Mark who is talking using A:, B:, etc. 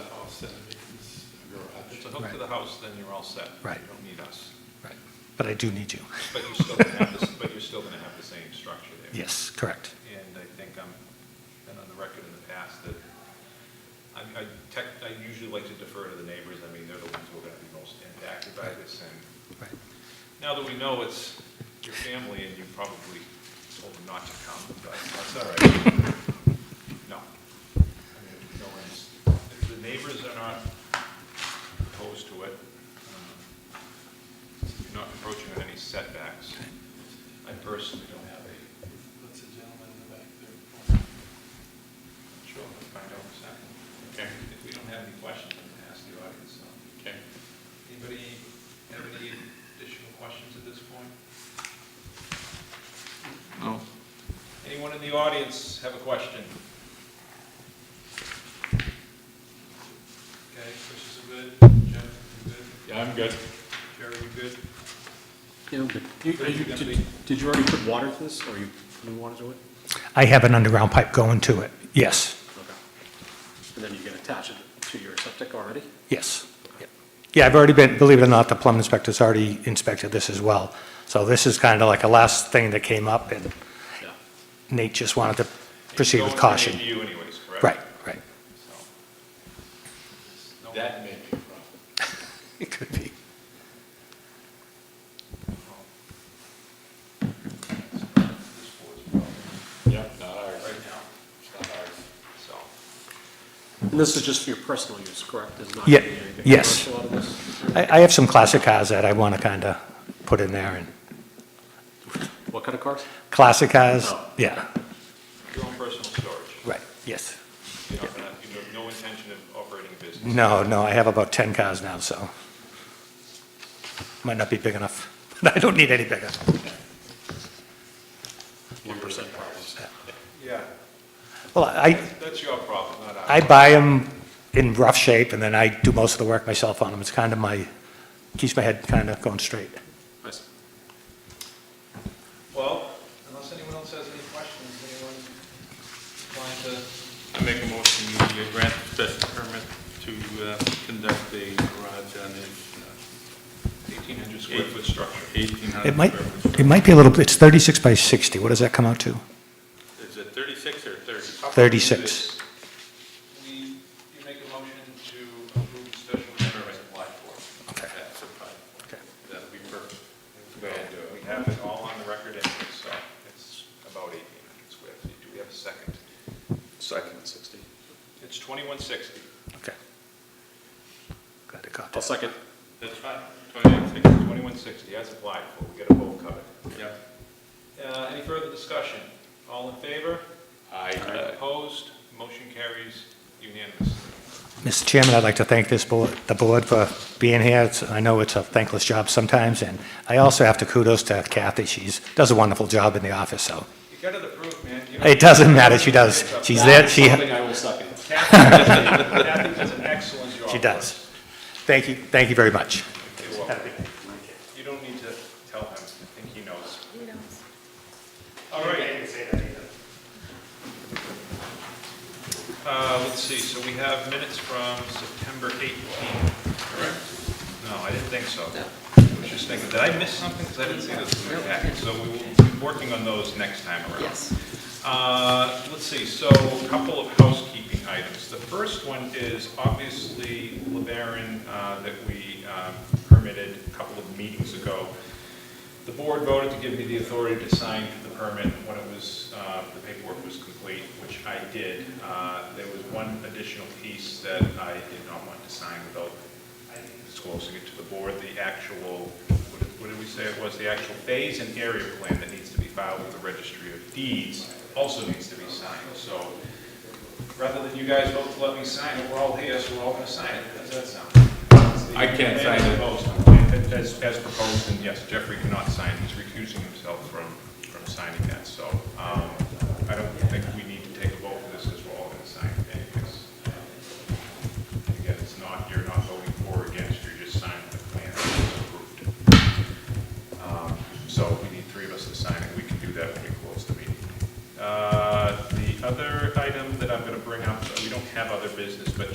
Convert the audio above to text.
A: vicinity is a garage.
B: It's a hook to the house, then you're all set.
C: Right.
B: You don't need us.
C: Right. But I do need you.
B: But you're still gonna have this, but you're still gonna have the same structure there.
C: Yes, correct.
B: And I think I'm, been on the record in the past that I, I tech, I usually like to defer to the neighbors. I mean, they're the ones who are gonna be most impacted by this. And
C: Right.
B: now that we know it's your family and you probably told them not to come, but that's all right. No. I mean, no one's, if the neighbors are not opposed to it. um, You're not approaching on any setbacks.
C: Okay.
B: I personally don't have a
A: That's a gentleman in the back there.
B: Sure, we'll find out in a second. Okay. If we don't have any questions, I'm gonna ask the audience. Okay. Anybody have any additional questions at this point?
D: No.
B: Anyone in the audience have a question?
A: Okay, Chris is good, Jeff, you good,
D: Yeah, I'm good.
A: Jerry, you good?
E: Yeah, okay. You- are you- Did did you already put water to this, or you putting water to it?
C: I have an underground pipe going to it. Yes,
E: Okay. And then you can attach it to your septic already?
C: yes. Yep. Yeah, I've already been, believe it or not, the plumbing inspector's already inspected this as well. So this is kind of like a last thing that came up, and
E: Yeah.
C: Nate just wanted to proceed with
B: It's
C: caution.
B: going to you anyways, correct?
C: Right, right.
B: So, no-
A: That may be a problem.
C: It could be.
B: This board's problem
D: Yep, not ours.
B: Right now,
D: It's not ours.
B: so,
E: And this is just for your personal use, correct? There's not
C: Yeah,
E: gonna be anything
C: yes.
E: commercial out of this?
C: I, I have some classic cars that I want to kind of put in there, and
E: What kind of cars?
C: classic cars,
E: Oh.
C: yeah,
B: your own personal storage.
C: right, yes.
B: You're not gonna- You have no intention of operating a business.
C: No, no, I have about 10 cars now, so might not be big enough. I don't need any bigger.
E: One percent problems.
B: Yeah,
C: Well, I,
B: that's your problem, not ours.
C: I buy them in rough shape, and then I do most of the work myself on them. It's kind of my, keeps my head kind of going straight.
E: Nice.
B: Well, unless anyone else has any questions, anyone inclined to,
D: I make a motion to
B: uh,
D: grant special permit to uh, conduct a garage on a
B: 1,800 uh, square foot structure.
D: eighteen hundred.
C: It might, it might be a little, it's 36 by 60, what does that come out to?
D: Is it thirty-six or thirty?
B: How about we do
C: 36.
B: this? We, you make a motion to approve the special permit applied for.
C: Okay.
D: That's a five.
C: Okay.
D: That'll be perfect.
B: We have it all on the record anyway, so it's about 1,800 square feet. Do we have a second?
E: Second, sixty.
B: It's 2160.
C: Okay. Glad to caught
E: I'll
C: that.
E: second.
D: That's fine. Twenty-eight,
B: 2160, as applied for, we get a whole covered.
D: six, yep.
B: Uh, Any further discussion? All in favor?
D: Aye.
B: Opposed? Motion carries unanimously.
C: Mr. Chairman, I'd like to thank this board, the board for being here. It's- I know it's a thankless job sometimes, and I also have to kudos to Kathy. She's, does a wonderful job in the office, so.
B: You got it approved, man. You don't-
C: It doesn't matter, she does. She's there, she,
E: Something I will second.
B: Kathy does- Kathy does an excellent job.
C: she does. Thank you, thank you very much.
B: You're welcome. You don't need to tell him, I think he knows.
F: He knows.
B: All right. Uh, let's see, so we have minutes from September 18th, correct? No, I didn't think so. I was just thinking, did I miss something? Because I didn't see those in my packet. So we will be working on those next time around.
F: Yes.
B: Uh, Let's see, so a couple of housekeeping items. The first one is obviously LeBaron uh, that we um, permitted a couple of meetings ago. The board voted to give me the authority to sign the permit when it was, uh, the paperwork was complete, which I did. Uh, There was one additional piece that I did not want to sign without disclosing it to the board, the actual, what did- what did we say it was? The actual phase and area plan that needs to be filed with the registry of deeds also needs to be signed. So rather than you guys vote to let me sign it, we're all here, so we're all going to sign it. How's that sound?
D: I can't sign it.
B: it. As, as proposed, and yes, Jeffrey cannot sign, he's recusing himself from, from signing that, so um, I don't think Um, Uh,